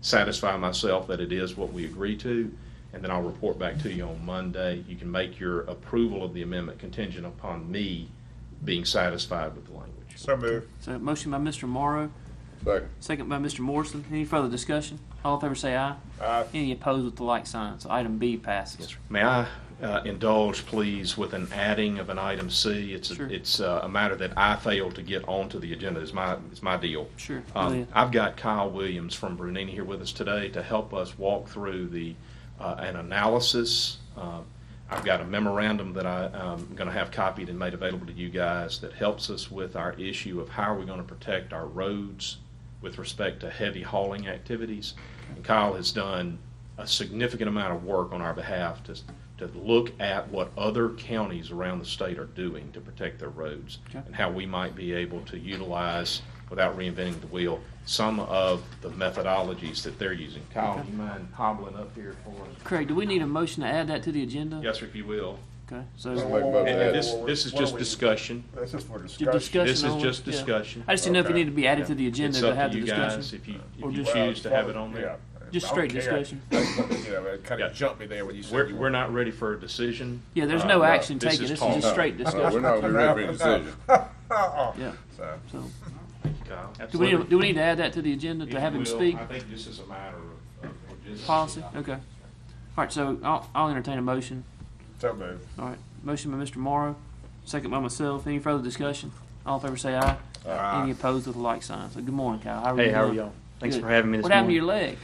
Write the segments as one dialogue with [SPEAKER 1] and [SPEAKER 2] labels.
[SPEAKER 1] satisfy myself that it is what we agree to, and then I'll report back to you on Monday. You can make your approval of the amendment contingent upon me being satisfied with the language.
[SPEAKER 2] So move.
[SPEAKER 3] So motion by Mr. Morrow,
[SPEAKER 2] Second.
[SPEAKER 3] second by Mr. Morrison. Any further discussion? All in favor say aye.
[SPEAKER 2] Aye.
[SPEAKER 3] Any opposed with the like sign. So item B passes.
[SPEAKER 1] May I uh, indulge, please, with an adding of an item C? It's,
[SPEAKER 3] Sure.
[SPEAKER 1] a- it's uh, a matter that I failed to get onto the agenda, it's my, it's my deal.
[SPEAKER 3] Sure, Oh, go
[SPEAKER 1] Um,
[SPEAKER 3] ahead.
[SPEAKER 1] I've got Kyle Williams from Brunini here with us today to help us walk through the, uh, an analysis. Uh, I've got a memorandum that I, I'm going to have copied and made available to you guys that helps us with our issue of how are we going to protect our roads with respect to heavy hauling activities. And Kyle has done a significant amount of work on our behalf to, to look at what other counties around the state are doing to protect their roads
[SPEAKER 3] Okay.
[SPEAKER 1] and how we might be able to utilize, without reinventing the wheel, some of the methodologies that they're using. Kyle, do you mind hobbling up here for us?
[SPEAKER 3] Craig, do we need a motion to add that to the agenda?
[SPEAKER 1] Yes, sir, if you will.
[SPEAKER 3] Okay,
[SPEAKER 2] Just
[SPEAKER 3] so
[SPEAKER 2] wait about
[SPEAKER 1] And
[SPEAKER 2] that.
[SPEAKER 1] and this, this is just discussion.
[SPEAKER 2] This is for
[SPEAKER 3] your discussion.
[SPEAKER 1] This is
[SPEAKER 3] on-
[SPEAKER 1] just
[SPEAKER 3] yeah.
[SPEAKER 1] discussion.
[SPEAKER 3] I just didn't know if it
[SPEAKER 2] Okay.
[SPEAKER 3] needed to be added to the agenda
[SPEAKER 1] It's
[SPEAKER 3] to
[SPEAKER 1] up
[SPEAKER 3] have
[SPEAKER 1] to
[SPEAKER 3] the
[SPEAKER 1] you guys
[SPEAKER 3] discussion.
[SPEAKER 1] if you,
[SPEAKER 3] Or
[SPEAKER 1] if you
[SPEAKER 3] just-
[SPEAKER 1] choose to have it on there.
[SPEAKER 2] Yeah.
[SPEAKER 3] Just
[SPEAKER 2] I don't
[SPEAKER 3] straight
[SPEAKER 2] care.
[SPEAKER 3] discussion.
[SPEAKER 2] That's what- You know, it kind
[SPEAKER 1] Yeah.
[SPEAKER 2] of jumped me there when you said.
[SPEAKER 1] We're,
[SPEAKER 2] you-
[SPEAKER 1] we're not ready for a decision.
[SPEAKER 3] Yeah, there's
[SPEAKER 1] Uh,
[SPEAKER 3] no action
[SPEAKER 1] this
[SPEAKER 3] taken.
[SPEAKER 1] is
[SPEAKER 3] This is just
[SPEAKER 1] talk.
[SPEAKER 3] straight
[SPEAKER 4] No, we're
[SPEAKER 3] discussion.
[SPEAKER 4] not, we're ready for a decision.
[SPEAKER 2] Uh-uh.
[SPEAKER 3] Yeah,
[SPEAKER 2] So,
[SPEAKER 3] so,
[SPEAKER 1] Kyle.
[SPEAKER 3] do we,
[SPEAKER 1] Absolutely.
[SPEAKER 3] do we need to add that to the agenda
[SPEAKER 1] If
[SPEAKER 3] to have
[SPEAKER 1] you
[SPEAKER 3] him
[SPEAKER 1] will,
[SPEAKER 3] speak?
[SPEAKER 1] I think this is a matter of- of logistics.
[SPEAKER 3] Policy? Okay. All right, so I'll, I'll entertain a motion.
[SPEAKER 2] so move.
[SPEAKER 3] All right, motion by Mr. Morrow, second by myself. Any further discussion? All in favor say aye. Any opposed with a like sign. So good morning, Kyle. How are you?
[SPEAKER 5] Hey, how are
[SPEAKER 3] doing?
[SPEAKER 5] y'all? Thanks
[SPEAKER 3] Good.
[SPEAKER 5] for having me this
[SPEAKER 3] What happened to your
[SPEAKER 5] morning.
[SPEAKER 3] leg?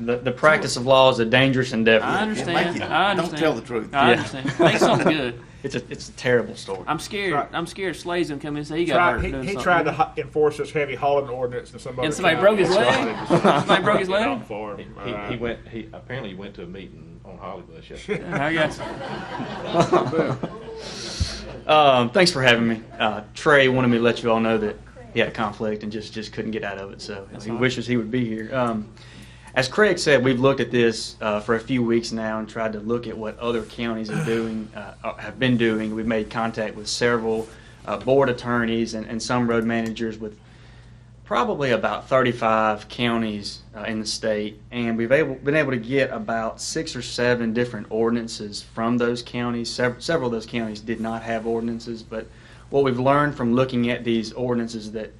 [SPEAKER 5] The, the practice of law is a dangerous endeavor.
[SPEAKER 3] I understand.
[SPEAKER 4] you.
[SPEAKER 3] I
[SPEAKER 4] Don't
[SPEAKER 3] understand.
[SPEAKER 4] tell the truth.
[SPEAKER 3] I
[SPEAKER 5] Yeah.
[SPEAKER 3] understand. Think something good.
[SPEAKER 5] It's a it's a terrible story.
[SPEAKER 3] I'm scared.
[SPEAKER 2] Right.
[SPEAKER 3] I'm scared Slade's gonna come in and say he got
[SPEAKER 2] Tried-
[SPEAKER 3] hurt doing
[SPEAKER 2] He, he
[SPEAKER 3] something.
[SPEAKER 2] tried to hi- enforce this heavy hauling ordinance and somebody.
[SPEAKER 3] And somebody broke his leg. somebody broke his leg.
[SPEAKER 2] For
[SPEAKER 1] He,
[SPEAKER 2] him.
[SPEAKER 1] he- he
[SPEAKER 2] Uh,
[SPEAKER 1] went, he apparently he went to a meeting on Hollywood yesterday.
[SPEAKER 3] Yeah, I guess.
[SPEAKER 5] Um, thanks for having me. Uh, Trey wanted me to let you all know that he had a conflict and just, just couldn't get out of it, so he
[SPEAKER 3] all right.
[SPEAKER 5] wishes he would be here. Um, as Craig said, we've looked at this uh, for a few weeks now and tried to look at what other counties are doing, uh, uh, have been doing. We've made contact with several uh, board attorneys and, and some road managers with probably about 35 counties uh, in the state, and we've able, been able to get about six or seven different ordinances from those counties. Sev- several of those counties did not have ordinances, but what we've learned from looking at these ordinances that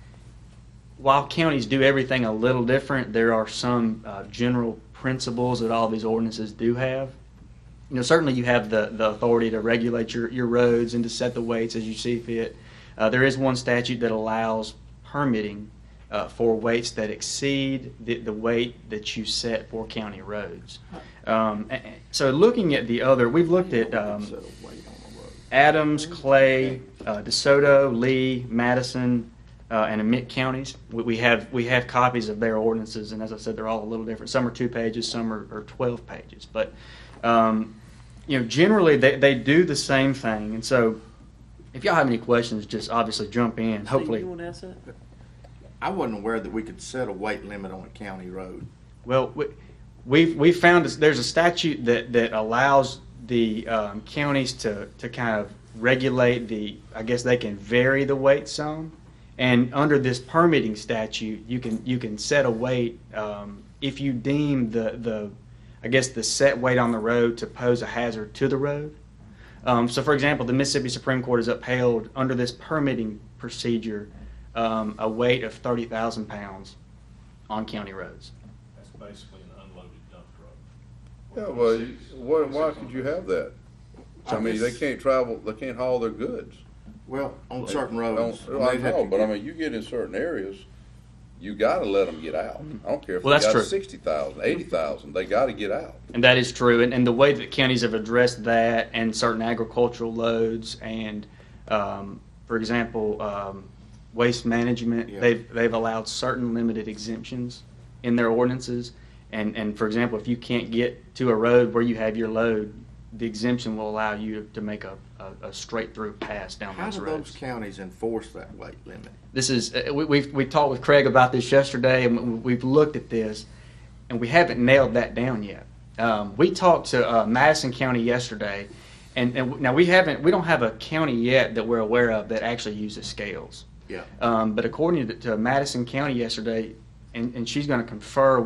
[SPEAKER 5] while counties do everything a little different, there are some uh, general principles that all these ordinances do have. You know, certainly you have the, the authority to regulate your, your roads and to set the weights as you see fit. Uh, there is one statute that allows permitting uh, for weights that exceed the, the weight that you set for county roads. Um, a- a- so looking at the other, we've looked at um, Adams, Clay, uh, DeSoto, Lee, Madison, uh, and Emmett counties. We, we have we have copies of their ordinances, and as I said, they're all a little different. Some are two pages, some are, are twelve pages. But um, you know, generally they, they do the same thing. And so, if y'all have any questions, just obviously jump in.
[SPEAKER 3] You
[SPEAKER 5] Hopefully,
[SPEAKER 3] want to ask that?
[SPEAKER 4] I wasn't aware that we could set a weight limit on a county road.
[SPEAKER 5] well, we, we've we found this, there's a statute that that allows the um, counties to to kind of regulate the. I guess they can vary the weight some. And under this permitting statute, you can you can set a weight um, if you deem the the I guess the set weight on the road to pose a hazard to the road. Um, so, for example, the Mississippi Supreme Court has upheld under this permitting procedure um, a weight of thirty thousand pounds on county roads.
[SPEAKER 1] That's basically an unloaded dump truck.
[SPEAKER 6] Yeah, well, you- why, why could you have that? I mean, they can't travel, they can't haul their goods.
[SPEAKER 4] Well, on certain
[SPEAKER 6] They
[SPEAKER 4] roads.
[SPEAKER 6] don't-
[SPEAKER 4] and
[SPEAKER 6] I
[SPEAKER 4] they'd have
[SPEAKER 6] know,
[SPEAKER 4] to
[SPEAKER 6] but I
[SPEAKER 4] get-
[SPEAKER 6] mean, you get in certain areas, you gotta let them get out. I don't care if they
[SPEAKER 5] Well, that's true.
[SPEAKER 6] got sixty thousand, eighty thousand, they gotta get out.
[SPEAKER 5] And that is true. And, and the way that counties have addressed that and certain agricultural loads and, um, for example, um, waste management,
[SPEAKER 4] Yeah.
[SPEAKER 5] they've, they've allowed certain limited exemptions in their ordinances. And, and for example, if you can't get to a road where you have your load, the exemption will allow you to make a, a, a straight through pass down
[SPEAKER 4] How
[SPEAKER 5] those
[SPEAKER 4] do those
[SPEAKER 5] roads.
[SPEAKER 4] counties enforce that weight limit?
[SPEAKER 5] This is, uh, we, we've, we talked with Craig about this yesterday and we've looked at this and we haven't nailed that down yet. Um, we talked to uh, Madison County yesterday, and, and now we haven't, we don't have a county yet that we're aware of that actually uses scales.
[SPEAKER 4] Yeah.
[SPEAKER 5] Um, but according to, to Madison County yesterday, and, and she's going to confer